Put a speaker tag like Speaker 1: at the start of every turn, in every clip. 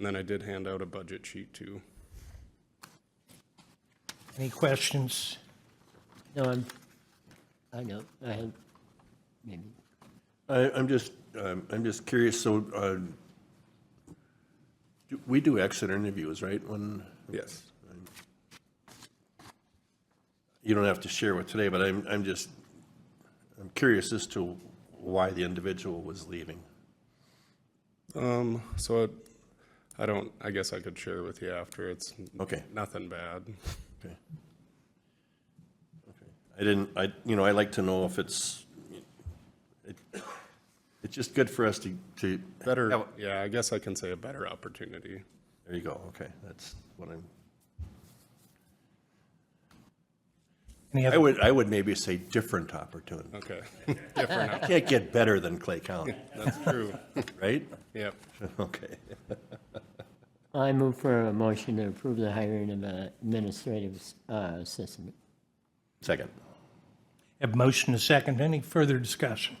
Speaker 1: And then I did hand out a budget sheet too.
Speaker 2: Any questions?
Speaker 3: No, I'm, I know, I have, maybe,
Speaker 4: I, I'm just, um, I'm just curious, so, uh, do- we do exit interviews, right? When,
Speaker 1: Yes.
Speaker 4: you don't have to share with today, but I'm, I'm just, I'm curious as to why the individual was leaving.
Speaker 1: Um, so it, I don't, I guess I could share with you after. It's
Speaker 4: Okay.
Speaker 1: nothing bad.
Speaker 4: Okay. Okay. I didn't, I, you know, I like to know if it's, it, it's just good for us to, to,
Speaker 1: Better,
Speaker 4: Have-
Speaker 1: yeah, I guess I can say a better opportunity.
Speaker 4: there you go, okay, that's what I'm,
Speaker 2: Any
Speaker 4: I
Speaker 2: other,
Speaker 4: would, I would maybe say different opportunity.
Speaker 1: Okay. Different, op-
Speaker 4: Can't get better than Clay County,
Speaker 1: that's true.
Speaker 4: right?
Speaker 1: Yep.
Speaker 4: Okay.
Speaker 3: I move for a motion to approve the hiring of an administrative uh, assistant.
Speaker 4: Second.
Speaker 2: have motion to second. Any further discussion?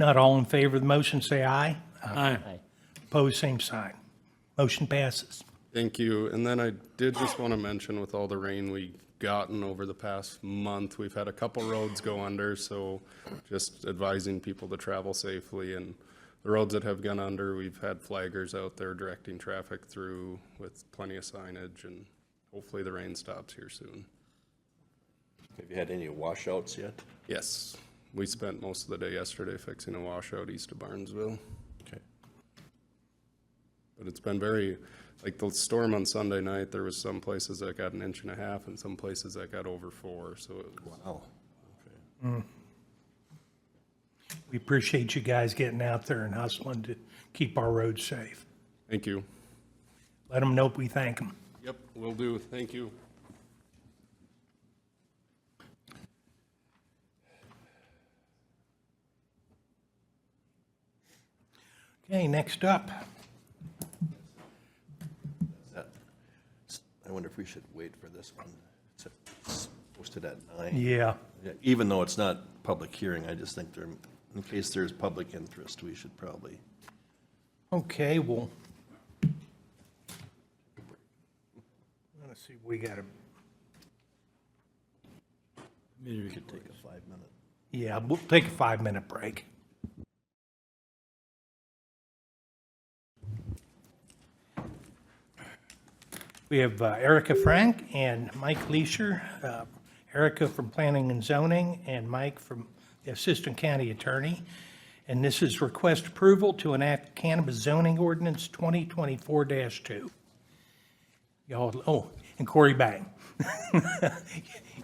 Speaker 2: Not all in favor of the motion, say aye. Aye.
Speaker 3: Aye.
Speaker 2: Opposed, same sign. Motion passes.
Speaker 1: Thank you. And then I did just want to mention with all the rain we gotten over the past month, we've had a couple roads go under, so just advising people to travel safely and the roads that have gone under, we've had flaggers out there directing traffic through with plenty of signage and hopefully the rain stops here soon.
Speaker 4: Have you had any washouts yet?
Speaker 1: Yes, we spent most of the day yesterday fixing a washout east of Barnesville.
Speaker 4: Okay.
Speaker 1: But it's been very, like the storm on Sunday night, there was some places that got an inch and a half and some places that got over four, so it was
Speaker 4: Oh,
Speaker 2: We appreciate you guys getting out there and hustling to keep our roads safe.
Speaker 1: Thank you.
Speaker 2: Let them know we thank them.
Speaker 1: Yep, will do. Thank you.
Speaker 2: Okay, next up,
Speaker 4: I wonder if we should wait for this one. It's Posted at nine.
Speaker 2: yeah,
Speaker 4: Yeah, Even though it's not public hearing, I just think there, in case there's public interest, we should probably.
Speaker 2: okay, well. Let's see, we got a,
Speaker 4: Maybe we could take a five-minute.
Speaker 2: yeah, we'll take a five-minute break. We have uh, Erica Frank and Mike Leisure, uh, Erica from Planning and Zoning, and Mike from the Assistant County Attorney. And this is request approval to enact cannabis zoning ordinance 2024-2. Y'all, oh, and Corey Bang.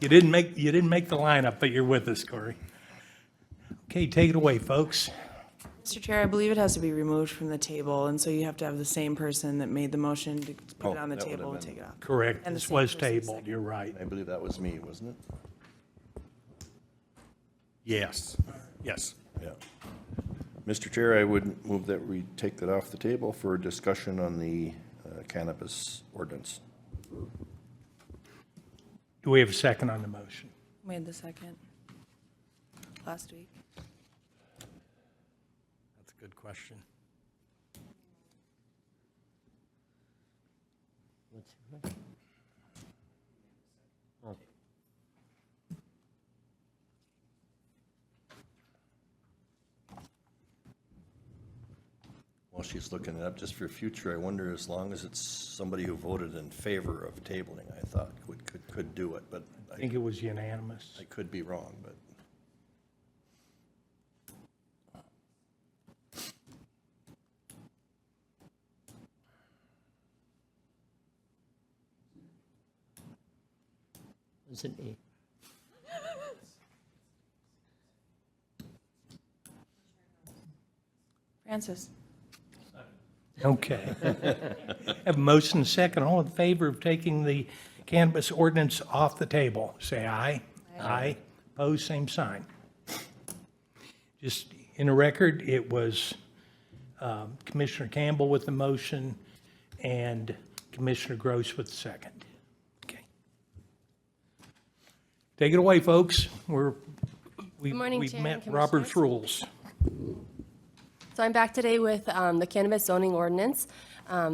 Speaker 2: You didn't make, you didn't make the lineup, but you're with us, Corey. Okay, take it away, folks.
Speaker 5: Mr. Chair, I believe it has to be removed from the table, and so you have to have the same person that made the motion to put
Speaker 4: Oh,
Speaker 5: it on the
Speaker 4: that would have
Speaker 5: table and
Speaker 4: been-
Speaker 5: take it off.
Speaker 2: Correct,
Speaker 5: And the
Speaker 2: this
Speaker 5: same
Speaker 2: was
Speaker 5: person's
Speaker 2: tabled, you're right.
Speaker 4: I believe that was me, wasn't it?
Speaker 6: Yes, yes.
Speaker 4: Yeah. Mr. Chair, I would move that we take that off the table for discussion on the uh, cannabis ordinance.
Speaker 2: Do we have a second on the motion?
Speaker 5: Made the second last week.
Speaker 6: That's a good question.
Speaker 4: While she's looking it up, just for future, I wonder as long as it's somebody who voted in favor of tabling, I thought would, could, could do it, but
Speaker 2: I
Speaker 4: I,
Speaker 2: think it was unanimous.
Speaker 4: I could be wrong, but.
Speaker 3: Was it me?
Speaker 5: Francis?
Speaker 2: Okay. Have a motion and a second, all in favor of taking the cannabis ordinance off the table, say aye. Aye. Opposed, same sign. Just in the record, it was um, Commissioner Campbell with the motion and Commissioner Gross with the second. Okay. Take it away, folks. We're, we-
Speaker 7: Good morning,
Speaker 2: we've
Speaker 7: Chair
Speaker 2: met
Speaker 7: and
Speaker 2: Robert's
Speaker 7: Commissioners.
Speaker 2: rules.
Speaker 7: So I'm back today with um, the cannabis zoning ordinance.